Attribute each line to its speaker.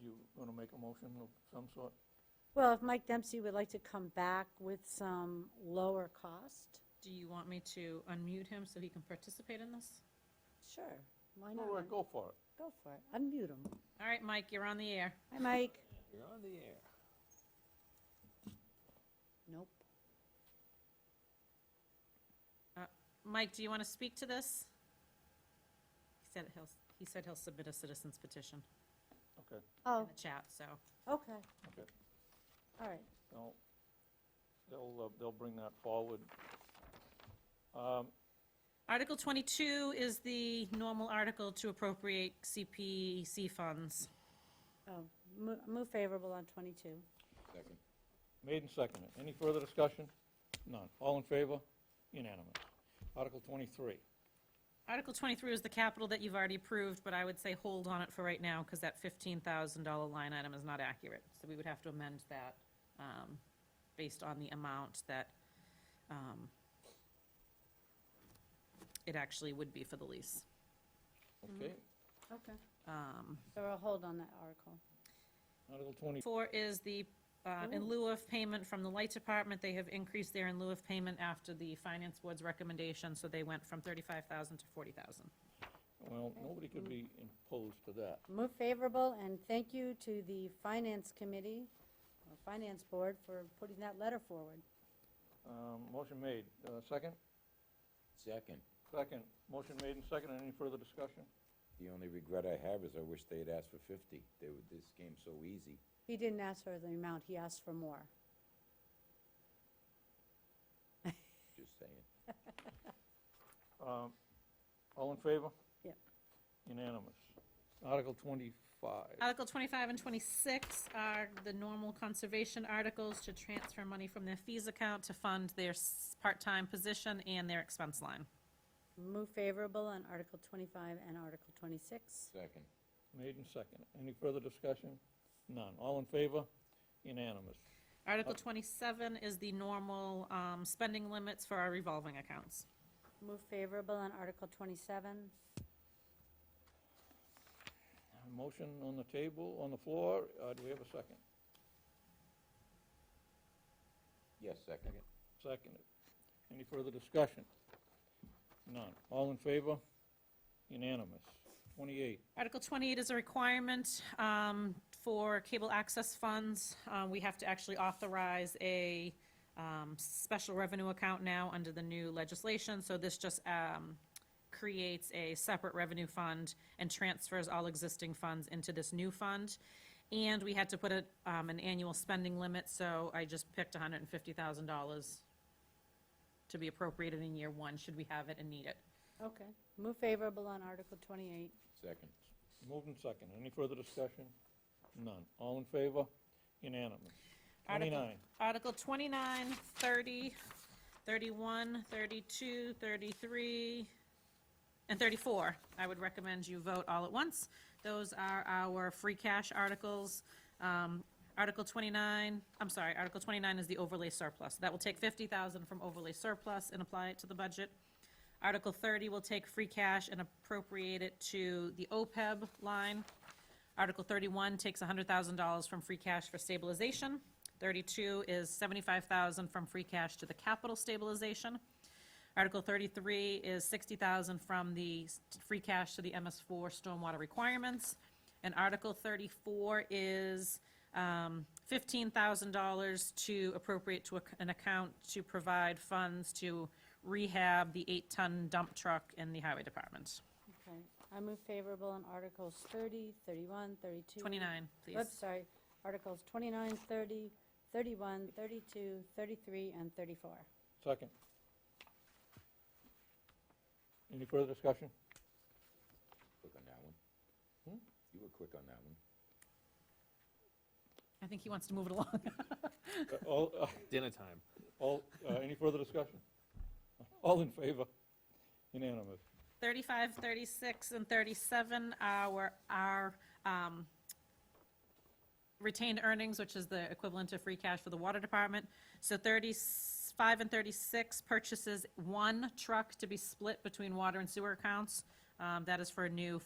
Speaker 1: you want to make a motion of some sort?
Speaker 2: Well, if Mike Dempsey would like to come back with some lower cost,
Speaker 3: Do you want me to unmute him so he can participate in this?
Speaker 2: sure, why
Speaker 1: All right,
Speaker 2: not?
Speaker 1: go for it.
Speaker 2: Go for it, unmute him.
Speaker 3: All right, Mike, you're on the air.
Speaker 2: Hi, Mike.
Speaker 1: You're on the air.
Speaker 2: Nope.
Speaker 3: Mike, do you want to speak to this? He said he'll, he said he'll submit a citizen's petition
Speaker 1: Okay,
Speaker 3: in
Speaker 2: Oh,
Speaker 3: the chat, so.
Speaker 2: okay,
Speaker 1: okay.
Speaker 2: all right.
Speaker 1: No, they'll, uh, they'll bring that forward. Um,
Speaker 3: Article 22 is the normal article to appropriate CPC funds.
Speaker 2: Oh, mo- move favorable on 22.
Speaker 4: Second.
Speaker 1: Made and seconded. Any further discussion? None. All in favor? Unanimous. Article 23.
Speaker 3: Article 23 is the capital that you've already approved, but I would say hold on it for right now because that $15,000 line item is not accurate. So we would have to amend that um, based on the amount that um, it actually would be for the lease.
Speaker 1: Okay.
Speaker 2: Okay.
Speaker 3: Um,
Speaker 2: So we'll hold on that article.
Speaker 1: Article 24.
Speaker 3: Four is the, uh, in lieu of payment from the light department, they have increased their in lieu of payment after the finance board's recommendation, so they went from 35,000 to 40,000.
Speaker 1: Well, nobody could be opposed to that.
Speaker 2: Move favorable, and thank you to the Finance Committee, or Finance Board, for putting that letter forward.
Speaker 1: Um, Motion made. Uh, Second?
Speaker 4: Second.
Speaker 1: Second. Motion made and seconded. Any further discussion?
Speaker 4: The only regret I have is I wish they had asked for fifty. They were, this game's so easy.
Speaker 2: He didn't ask for the amount, he asked for more.
Speaker 4: Just saying.
Speaker 1: Um, All in favor?
Speaker 2: Yep.
Speaker 1: Unanimous. Article 25.
Speaker 3: Article 25 and 26 are the normal conservation articles to transfer money from their fees account to fund their s- part-time position and their expense line.
Speaker 2: Move favorable on Article 25 and Article 26.
Speaker 4: Second.
Speaker 1: Made and seconded. Any further discussion? None. All in favor? Unanimous.
Speaker 3: Article 27 is the normal um, spending limits for our revolving accounts.
Speaker 2: Move favorable on Article 27.
Speaker 1: Motion on the table, on the floor. Uh, Do we have a second?
Speaker 4: Yes, second.
Speaker 1: Seconded. Any further discussion? None. All in favor? Unanimous. 28.
Speaker 3: Article 28 is a requirement um, for cable access funds. Uh, We have to actually authorize a um, special revenue account now under the new legislation, so this just um, creates a separate revenue fund and transfers all existing funds into this new fund. And we had to put a, um, an annual spending limit, so I just picked $150,000 to be appropriated in year one, should we have it and need it.
Speaker 2: Okay. Move favorable on Article 28.
Speaker 4: Second.
Speaker 1: Moved and seconded. Any further discussion? None. All in favor? Unanimous.
Speaker 3: Article-
Speaker 1: 29.
Speaker 3: Article 29, 30, 31, 32, 33, and 34. I would recommend you vote all at once. Those are our free cash articles. Um, Article 29, I'm sorry, Article 29 is the overlay surplus. That will take 50,000 from overlay surplus and apply it to the budget. Article 30 will take free cash and appropriate it to the OPEB line. Article 31 takes $100,000 from free cash for stabilization. 32 is 75,000 from free cash to the capital stabilization. Article 33 is 60,000 from the s- free cash to the MS4 stormwater requirements. And Article 34 is um, $15,000 to appropriate to ac- an account to provide funds to rehab the eight-ton dump truck in the highway department.
Speaker 2: Okay. I move favorable on Articles 30, 31, 32.
Speaker 3: 29, please.
Speaker 2: Oops, sorry. Articles 29, 30, 31, 32, 33, and 34.
Speaker 1: Second. Any further discussion?
Speaker 4: Quick on that one. You were quick on that one.
Speaker 3: I think he wants to move it along.
Speaker 1: Uh, All, uh,
Speaker 5: Dinner time.
Speaker 1: all, uh, any further discussion? All in favor? Unanimous.
Speaker 3: 35, 36, and 37 are our um, retained earnings, which is the equivalent of free cash for the water department. So 35 and 36 purchases one truck to be split between water and sewer accounts. Um, That is for a new